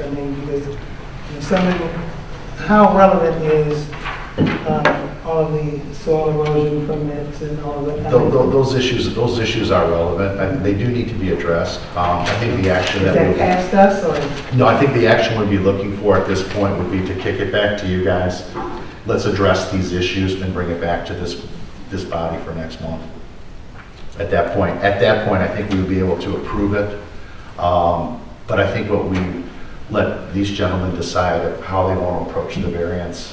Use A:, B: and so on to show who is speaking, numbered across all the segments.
A: I mean, because in some, how relevant is um, all the soil erosion permits and all that? I
B: Tho-
A: mean,
B: tho- Those issues, those issues are relevant, and they do need to be addressed. Um, I think the action
A: Is
B: that
A: that
B: we,
A: past us or?
B: no, I think the action we'd be looking for at this point would be to kick it back to you guys. Let's address these issues and bring it back to this, this body for next month. At that point, at that point, I think we would be able to approve it. Um, But I think what we, let these gentlemen decide how they want to approach the variance.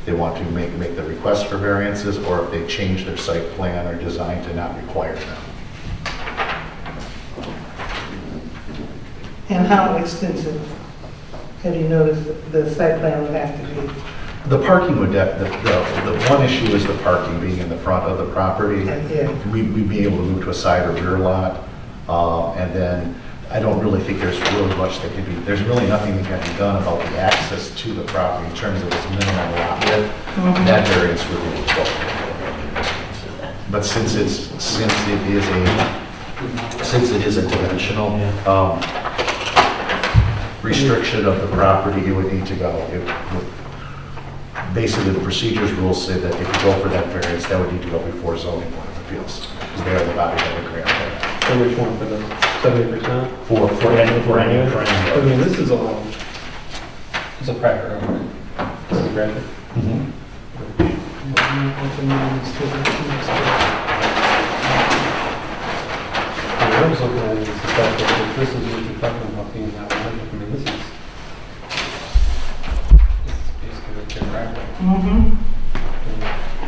B: If They want to make, make the request for variances, or if they change their site plan or design to not require them.
A: And how extensive, have you noticed the site plan would have to be?
B: The parking would, def- the, the, the one issue is the parking being in the front of the property.
A: Yeah.
B: We- We'd be able to move to a side or rear lot, uh, and then I don't really think there's really much that can be, there's really nothing that can be done about the access to the property in terms of its minimum lot width. That variance would be difficult. But since it's, since it is a, since it is a dimensional um, restriction of the property, it would need to go. It would- basically, the procedures rules say that if you go for that variance, that would need to go before zoning board of appeals, because they are the body that would grant that.
C: So which one for the seventy percent?
B: For, for any, for any, for any.
C: I
B: road.
C: mean, this is all. It's a private road. It's a private.
B: Mhm.
A: Mm-hmm.
C: I was looking at it as a fact that this is what you're talking about being that one, I mean, this is. This is basically like your driveway.
A: Mm-hmm.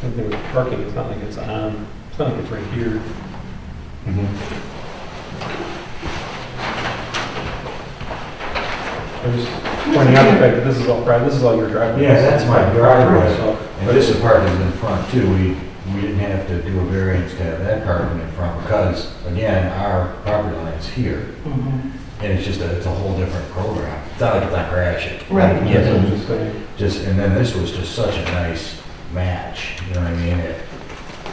C: Something with parking, it's not like it's on, it's not like it's right here.
B: Mm-hmm.
C: I'm just pointing out the fact that this is all private, this is all your driveway.
D: Yeah, that's my driveway.
C: So-
D: And this apartment's in front too, we, we didn't have to do a variance to have that apartment in front because, again, our property line's here. And it's just, a it's a whole different program. It's not like it's on Gratiot.
A: Right.
C: That's what I'm
D: Yeah,
C: just saying.
D: Just, and then this was just such a nice match, you know what I mean? It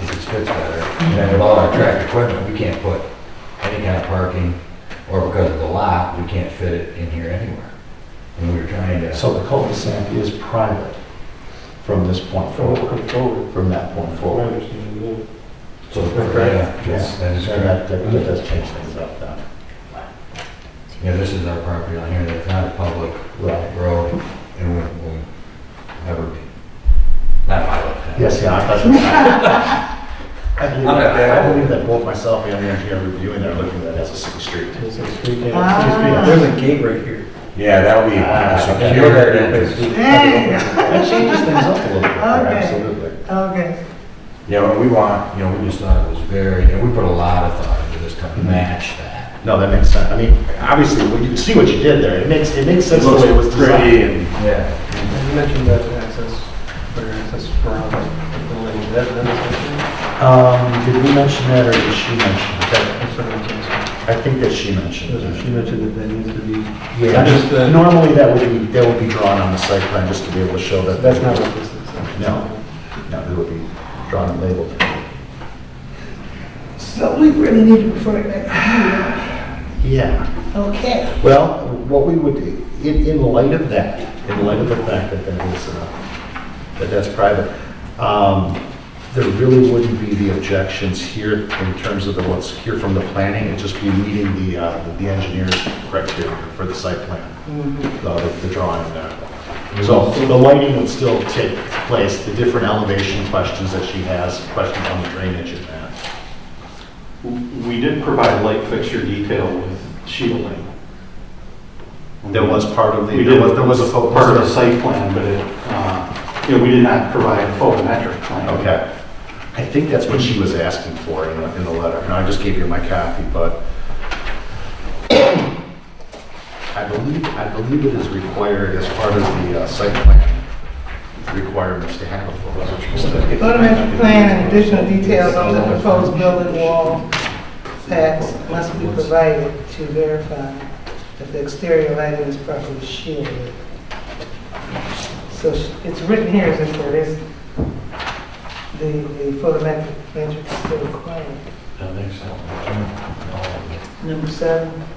D: it just fits better. And then with all our track equipment, we can't put any kind of parking, or because of the lot, we can't fit it in here anywhere. And we were trying to.
B: So the cul-de-sac is private from this point
C: So we'll
B: forward,
C: come forward.
B: from that point
C: My
B: forward.
C: understanding, yeah.
D: So,
C: Correct.
D: yeah, yes, that is
B: And
D: correct.
B: that, that that does change things up then.
D: Yeah, this is our property line here, that's not a public
B: Right.
D: road, and we'll, we'll never be. Not my lifetime.
B: Yes, yeah, I thought that. I believe,
D: I'm not
B: that-
D: bad.
B: I believe that both myself and the engineer reviewing that are looking at that as a city street.
C: This is street, yeah, it's
A: Ah.
C: street. There's a gate right here.
D: Yeah, that would be
B: Ah,
D: a
C: Yeah,
D: secure
C: you're right,
D: entrance.
C: you're right.
A: Dang,
B: That changes things up a little bit,
A: Okay.
B: absolutely.
A: okay.
D: Yeah, well, we want, you know, we just thought it was very, and we put a lot of thought into this to
B: Mm-hmm.
D: match that.
B: No, that makes sense. I mean, obviously, when you see what you did there, it makes, it makes sense the way it was designed.
D: and. Yeah.
C: You mentioned that access, or access around the building, Is that, that is
B: Um, did we mention that or did she mention it? That-
C: mentioned, I'm sorry,
B: I think that she mentioned
C: I'm sorry. She
B: it.
C: mentioned that that needs to be.
B: Yeah,
C: I'm just, uh,
B: normally that would be, that would be drawn on the site plan just to be able to show that.
C: That's not what this is.
B: No. No, it would be drawn and labeled.
A: So we really need to refer it back
B: Yeah.
A: to you. Okay.
B: Well, what we would, in, in light of that, in light of the fact that that is, uh, that that's private, um, there really wouldn't be the objections here in terms of the what's here from the planning, it'd just be meeting the, uh, the engineer's criteria for the site plan, uh, the the drawing there. So the lighting would still take place, the different elevation questions that she has, questions on the drainage and that.
E: We did provide light fixture detail with shielding.
B: There was part of the,
E: We
B: there
E: did,
B: was, there was a fo-
E: part of the site plan, but it, uh, you know, we did not provide a photometric plan.
B: Okay. I think that's what she was asking for in the, in the letter, and I just gave you my copy, but I believe, I believe it is required as part of the uh, site plan requirements to have a photometric.
A: Photometric plan and additional details on the proposed building wall packs must be provided to verify that the exterior lighting is properly shielded. So sh- it's written here, as if there is, the, the photometric metric is still required.
D: That makes sense.
A: Number seven,